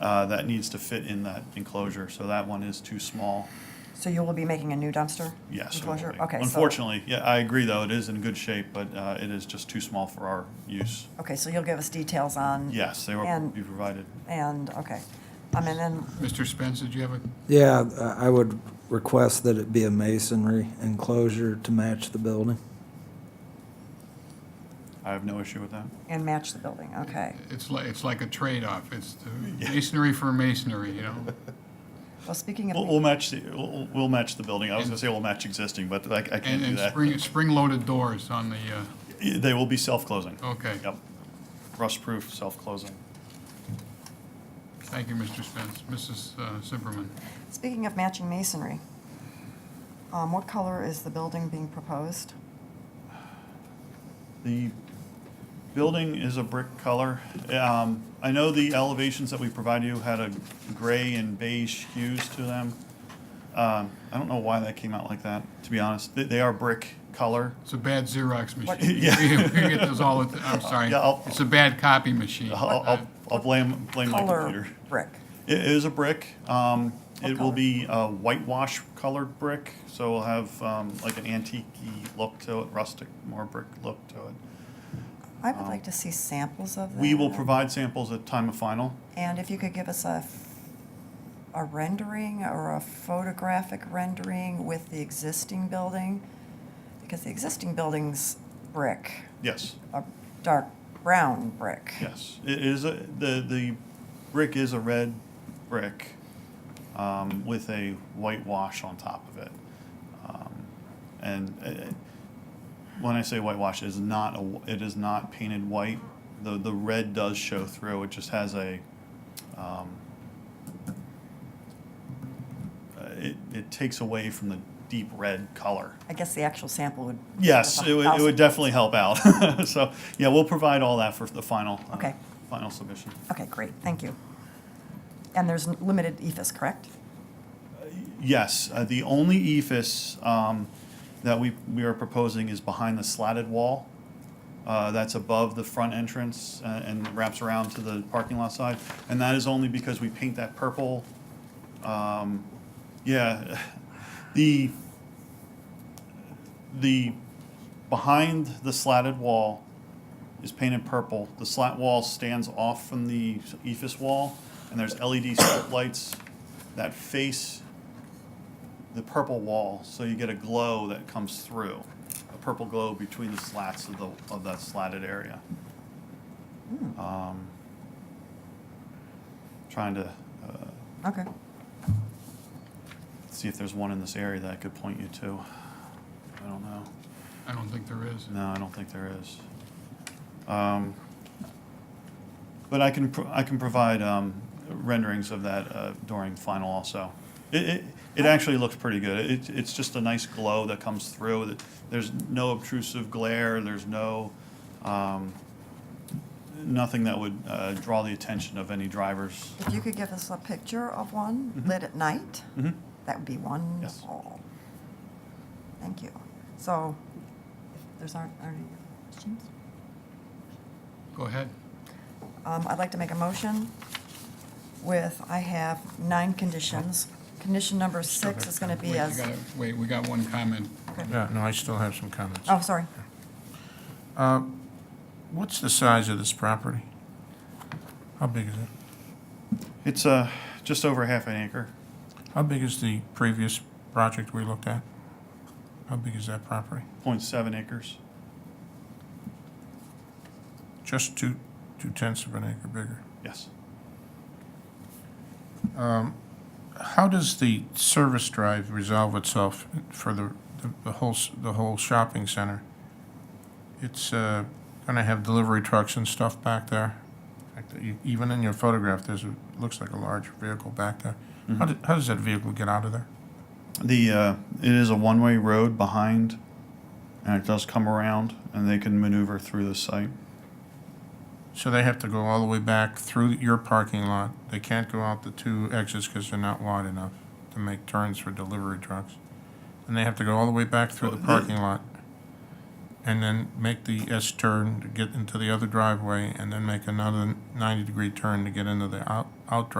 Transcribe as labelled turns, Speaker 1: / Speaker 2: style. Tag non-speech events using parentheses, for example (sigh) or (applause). Speaker 1: uh, that needs to fit in that enclosure, so that one is too small.
Speaker 2: So you will be making a new dumpster?
Speaker 1: Yes. it will
Speaker 2: Enclosure,
Speaker 1: be.
Speaker 2: okay. so-
Speaker 1: Unfortunately, yeah, I agree, though, it is in good shape, but uh, it is just too small for our use.
Speaker 2: Okay, so you'll give us details on?
Speaker 1: Yes, they will
Speaker 2: And-
Speaker 1: be provided.
Speaker 2: And, okay. Um, and then,
Speaker 3: Mr. Spence, did you have a,
Speaker 4: Yeah, I I would request that it be a masonry enclosure to match the building.
Speaker 1: I have no issue with that.
Speaker 2: and match the building, okay.
Speaker 3: it's like, it's like a trade-off. It's the masonry for masonry, you know?
Speaker 1: (laughs)
Speaker 2: Well, speaking
Speaker 1: We'll,
Speaker 2: of,
Speaker 1: we'll match, the we'll, we'll match the building. I was gonna say we'll match existing, but I, I can't
Speaker 3: And,
Speaker 1: do
Speaker 3: and
Speaker 1: that.
Speaker 3: spring, spring-loaded doors on the, uh,
Speaker 1: They will be self-closing.
Speaker 3: okay.
Speaker 1: Yep. Rust-proof, self-closing.
Speaker 3: Thank you, Mr. Spence. Mrs. uh, Zimmerman,
Speaker 1: oh.
Speaker 2: speaking of matching masonry, um, what color is the building being proposed?
Speaker 1: The building is a brick color. Um, I know the elevations that we provided you had a gray and beige hues to them. Um, I don't know why that came out like that, to be honest. They, they are brick color.
Speaker 3: it's a bad
Speaker 1: (laughs)
Speaker 3: Xerox machine.
Speaker 1: Yeah.
Speaker 3: We we get those all, the ti-
Speaker 1: (laughs)
Speaker 3: I'm sorry.
Speaker 1: Yeah, I'll-
Speaker 3: It's a bad copy machine.
Speaker 1: I'll, I'll, I'll blame, blame my computer.
Speaker 2: Color brick.
Speaker 1: It is a brick. Um,
Speaker 2: What
Speaker 1: it will
Speaker 2: color?
Speaker 1: be a whitewash colored brick, so we'll have um, like an antique look to it, rustic, more brick look to it.
Speaker 2: I would like to see samples of that.
Speaker 1: Um, We will provide samples at time of final.
Speaker 2: And if you could give us a, a rendering or a photographic rendering with the existing building, because the existing building's brick,
Speaker 1: Yes,
Speaker 2: a dark brown brick.
Speaker 1: yes. It is a, the the brick is a red brick um, with a whitewash on top of it. Um, and uh, when I say whitewash, it is not a wh- it is not painted white. The the red does show through. It just has a um, uh, it, it takes away from the deep red color.
Speaker 2: I guess the actual sample would.
Speaker 1: Yes, it would, it would
Speaker 2: Thousand.
Speaker 1: definitely help out. (laughs) So, yeah, we'll provide all that for the final, uh,
Speaker 2: Okay.
Speaker 1: final submission.
Speaker 2: Okay, great, thank you. And there's n- limited EFS, correct?
Speaker 1: Yes, uh, the only EFS um, that we, we are proposing is behind the slatted wall. uh, That's above the front entrance uh, and wraps around to the parking lot side. And that is only because we paint that purple. um, Yeah, (laughs) the, the, behind the slatted wall is painted purple. The slat wall stands off from the E EFS wall, and there's LED strip lights that face the purple wall, so you get a glow that comes through, a purple glow between the slats of the, of that slatted area. Um, Trying to uh,
Speaker 2: Okay,
Speaker 1: see if there's one in this area that I could point you to. I don't know.
Speaker 3: I don't think there is.
Speaker 1: No, I don't think there is. Um, But I can, pro- I can provide um, renderings of that uh, during final also. It, it, it actually looks pretty good. It, it's just a nice glow that comes through. That- There's no obtrusive glare, there's no, um, nothing that would uh, draw the attention of any drivers.
Speaker 2: if you could give us a picture of one
Speaker 1: Mm-hmm.
Speaker 2: lit at night,
Speaker 1: Mhm.
Speaker 2: that would be wonderful. Thank you. So, if there's aren't, aren't any other questions?
Speaker 3: Go ahead.
Speaker 2: Um, I'd like to make a motion with, I have nine conditions. Condition number six is gonna
Speaker 3: Wait,
Speaker 2: be
Speaker 3: you
Speaker 2: as,
Speaker 3: gotta- Wait, we got one comment.
Speaker 5: Yeah, no, I still have some comments.
Speaker 2: oh, sorry.
Speaker 5: Uh, What's the size of this property? How big is it?
Speaker 1: It's uh, just over half an acre.
Speaker 5: How big is the previous project we looked at? How big is that property?
Speaker 1: 0.7 acres.
Speaker 5: Just two, two tenths of an acre bigger.
Speaker 1: Yes.
Speaker 5: How does the service drive resolve itself for the, the- the whole, s- the whole shopping center? It's uh, gonna have delivery trucks and stuff back there. In fact, e- Even in your photograph, there's, a- looks like a large vehicle back there. How did, how does that vehicle get out of there?
Speaker 1: The, uh, it is a one-way road behind, and it does come around, and they can maneuver through the site.
Speaker 5: So they have to go all the way back through your parking lot. They can't go out the two exits because they're not wide enough to make turns for delivery trucks. And they have to go all the way back through the parking lot and then make the S turn to get into the other driveway and then make another ninety degree turn to get into the out, out driveway.